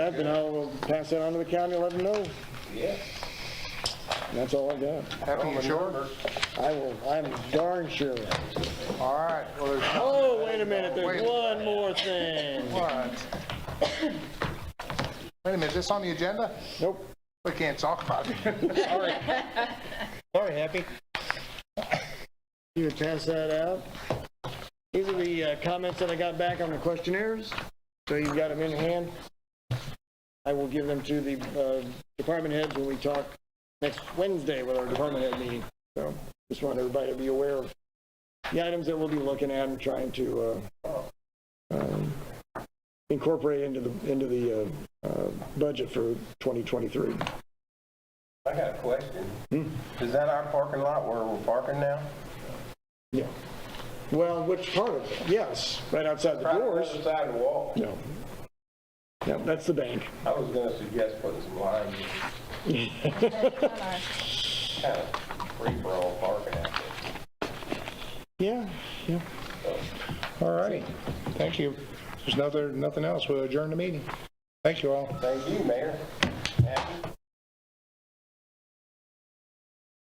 Up, And I'll pass that on to the county, let them know. And Yeah. That's all I got. Happy you sure? I will, I'm darn sure. All right, well, there's no Oh, wait a minute, Wait. there's one more thing. what? Wait a minute, is this on the agenda? Nope. We can't talk about it. Sorry, Happy. You would pass that out. These are the uh, comments that I got back on the questionnaires, so you've got them in hand. I will give them to the uh, department heads when we talk next Wednesday with our department head meeting. So just want everybody to be aware of the items that we'll be looking at and trying to uh, um, incorporate into the, into the uh, uh, budget for 2023. I got a question. Is that our parking lot where we're parking now? Yeah. Well, which part of it? Yes, right outside the doors. Right on the other side of the wall. No. No, that's the bank. I was gonna suggest putting some lines, kind of free for all parking out there. Yeah, yeah. All righty. Thank you. There's nothing, nothing else. We'll adjourn the meeting. Thank you all. Thank you, Mayor. Happy.